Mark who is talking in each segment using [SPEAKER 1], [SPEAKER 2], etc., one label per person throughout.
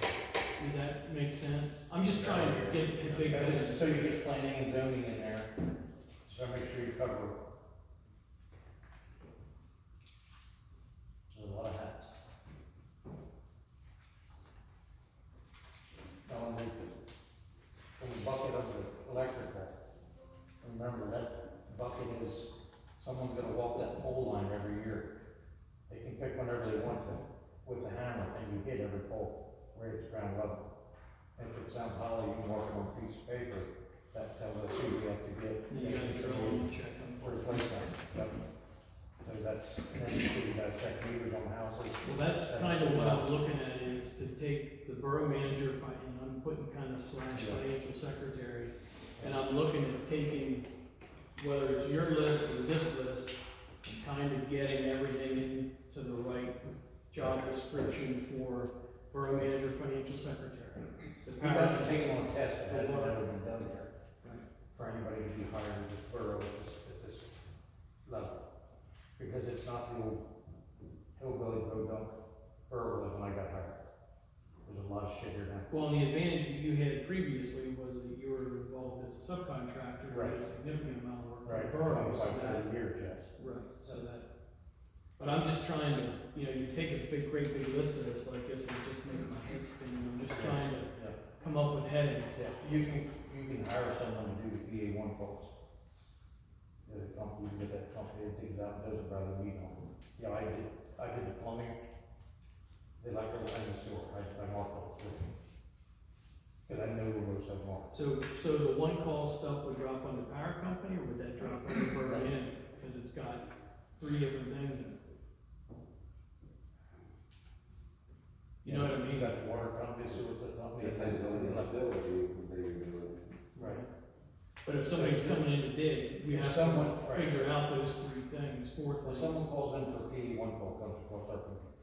[SPEAKER 1] Does that make sense? I'm just trying to get the big picture.
[SPEAKER 2] So you get planning and zoning in there, so make sure you cover. There's a lot of hats. Tell them, we- from the bucket of the electrical, remember that bucket is, someone's gonna walk that pole line every year. They can pick whenever they want to, with a hammer, and you hit every pole, where it's ground level. If it's on hollow, you can mark it on a piece of paper, that tells us who we have to get.
[SPEAKER 1] You gotta drill and check them
[SPEAKER 2] For
[SPEAKER 1] for
[SPEAKER 2] a place on, yep. So that's, then you do, you gotta check meters on houses.
[SPEAKER 1] Well, that's kind of what I'm looking at is to take the borough manager, fi- and I'm putting kind of slash
[SPEAKER 2] Yeah.
[SPEAKER 1] financial secretary, and I'm looking at taking, whether it's your list or this list, and kind of getting everything to the right job description for borough manager, financial secretary. The
[SPEAKER 2] You have
[SPEAKER 1] power-
[SPEAKER 2] to take them on test, but that's
[SPEAKER 1] For what?
[SPEAKER 2] never been done here.
[SPEAKER 1] Right.
[SPEAKER 2] For anybody to be hired in this borough at this, at this level. Because it's not the old hillbilly, bro, dump borough when I got hired. There's a lot of shit here now.
[SPEAKER 1] Well, and the advantage that you had previously was that you were involved as a subcontractor, with a
[SPEAKER 2] Right.
[SPEAKER 1] significant amount of work. for
[SPEAKER 2] Right,
[SPEAKER 1] the borough, so
[SPEAKER 2] like
[SPEAKER 1] that-
[SPEAKER 2] for a year, Jess.
[SPEAKER 1] Right, so that, but I'm just trying to, you know, you take a big, great big list of this like this, and it just makes my head spin, and I'm just trying to
[SPEAKER 2] Yeah.
[SPEAKER 1] come up with headings.
[SPEAKER 2] Yeah, you can, you can hire someone to do the PA one calls. There's a company, you get that company, that digs out, and does it by the meter. Yeah, I did, I did the plumbing. They like everything in the sewer, I, I marked all three. Cause I know the roads I marked.
[SPEAKER 1] So, so the one call stuff would drop on the power company, or would that drop on the borough manager? Because it's got three different things in it. You know what I
[SPEAKER 2] You
[SPEAKER 1] mean?
[SPEAKER 2] got the water company, sewer company.
[SPEAKER 3] Depends on the utility that you're doing.
[SPEAKER 2] Right.
[SPEAKER 1] But if somebody's coming in to dig, we have
[SPEAKER 2] Someone,
[SPEAKER 1] to
[SPEAKER 2] right.
[SPEAKER 1] figure out those three things, four
[SPEAKER 2] If
[SPEAKER 1] things.
[SPEAKER 2] someone calls in for P E one call, comes across our computer.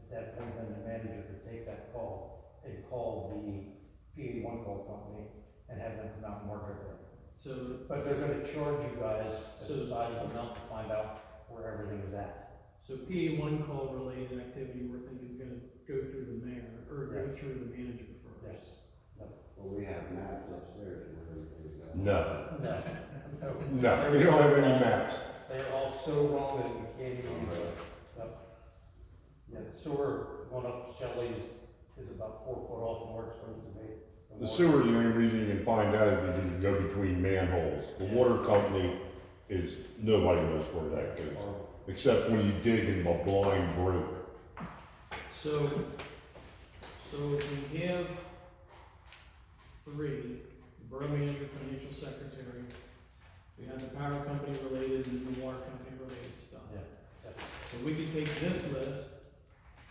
[SPEAKER 2] At that point, then the manager could take that call and call the P E one call company and have them come out and work it.
[SPEAKER 1] So,
[SPEAKER 2] But they're gonna charge you guys a
[SPEAKER 1] So-
[SPEAKER 2] sizable amount to find out where everything is at.
[SPEAKER 1] So PA one call related activity, we're thinking is gonna go through the mayor, or go through the manager first.
[SPEAKER 3] Well, we have maps upstairs where everything's at.
[SPEAKER 2] No,
[SPEAKER 4] No,
[SPEAKER 2] no,
[SPEAKER 4] no, we don't have any maps.
[SPEAKER 2] they're all so wrong that you can't even, yeah, the sewer one up Shelley's is about four foot off from where it's supposed to be.
[SPEAKER 4] The sewer, the only reason you can find out is because you go between manholes. The water company is, nobody knows where that goes,
[SPEAKER 2] Or-
[SPEAKER 4] except when you dig in the blind brook.
[SPEAKER 1] So, so if we have three, the borough manager, financial secretary, we have the power company related and the water company related stuff.
[SPEAKER 2] Yeah.
[SPEAKER 1] So we could take this list,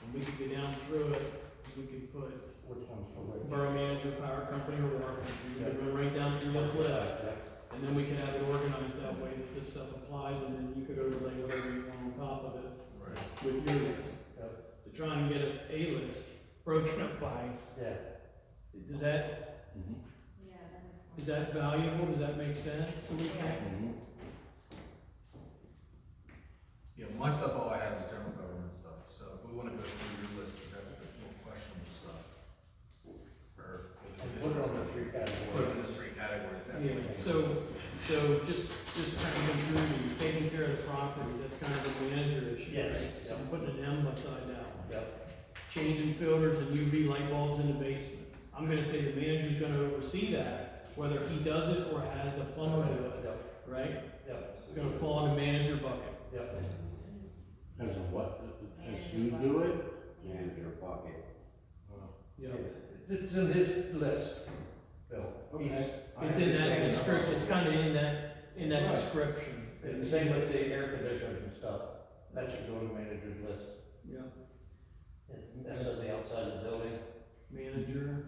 [SPEAKER 1] and we could go down through it, and we could put
[SPEAKER 2] Which one's for which?
[SPEAKER 1] borough manager, power company, or water company, we could go right down through this list.
[SPEAKER 2] Yeah.
[SPEAKER 1] And then we can have it organized that way that this stuff applies, and then you could overlay whatever you want on top of it. With your list. To try and get us a list broken up by,
[SPEAKER 2] Yeah,
[SPEAKER 1] does that,
[SPEAKER 5] Yeah.
[SPEAKER 1] is that valuable, does that make sense to me?
[SPEAKER 6] Yeah, my stuff, all I have is general government stuff, so if we wanna go through your list, 'cause that's the more questionable stuff. Or.
[SPEAKER 2] and put it on the three
[SPEAKER 6] Put it
[SPEAKER 2] categories.
[SPEAKER 6] in the three categories, that
[SPEAKER 1] Yeah,
[SPEAKER 6] way.
[SPEAKER 1] so, so just, just kind of going through, these, taking care of the properties, that's kind of a manager issue.
[SPEAKER 2] Yes.
[SPEAKER 1] right? So I'm putting an M beside that one.
[SPEAKER 2] Yep,
[SPEAKER 1] Changing filters and UV light bulbs in the basement. I'm gonna say the manager's gonna oversee that, whether he does it or has a plumber do it,
[SPEAKER 2] yep,
[SPEAKER 1] right?
[SPEAKER 2] yep,
[SPEAKER 1] It's gonna fall in the manager bucket.
[SPEAKER 2] yep.
[SPEAKER 7] As a what? As you do it?
[SPEAKER 3] Manager bucket.
[SPEAKER 1] Yeah.
[SPEAKER 2] It's in his list, Bill. He's-
[SPEAKER 7] Okay. I
[SPEAKER 1] It's in that
[SPEAKER 7] understand.
[SPEAKER 1] description, it's kinda in that, in that
[SPEAKER 2] Right.
[SPEAKER 1] description.
[SPEAKER 2] And the same with the air conditioners and stuff, that should go to the manager's list.
[SPEAKER 1] Yeah,
[SPEAKER 2] And That's on the outside of the building,
[SPEAKER 1] manager,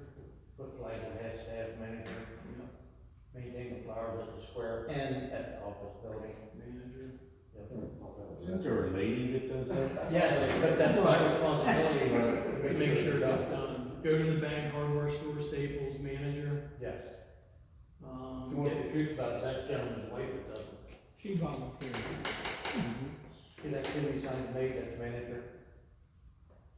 [SPEAKER 2] put flags and hats, staff manager,
[SPEAKER 1] yeah,
[SPEAKER 2] maintain the flowers at the square and at the office building.
[SPEAKER 1] manager.
[SPEAKER 7] Isn't there a lady that does that?
[SPEAKER 2] Yes, but that's my responsibility, uh,
[SPEAKER 1] To make sure that's done. Go to the bank, hardware store, Staples, manager,
[SPEAKER 2] Yes. If you
[SPEAKER 1] um,
[SPEAKER 2] want the truth about it, that gentleman's wife that does it.
[SPEAKER 1] she volunteered.
[SPEAKER 2] See that activity sign made, that's manager.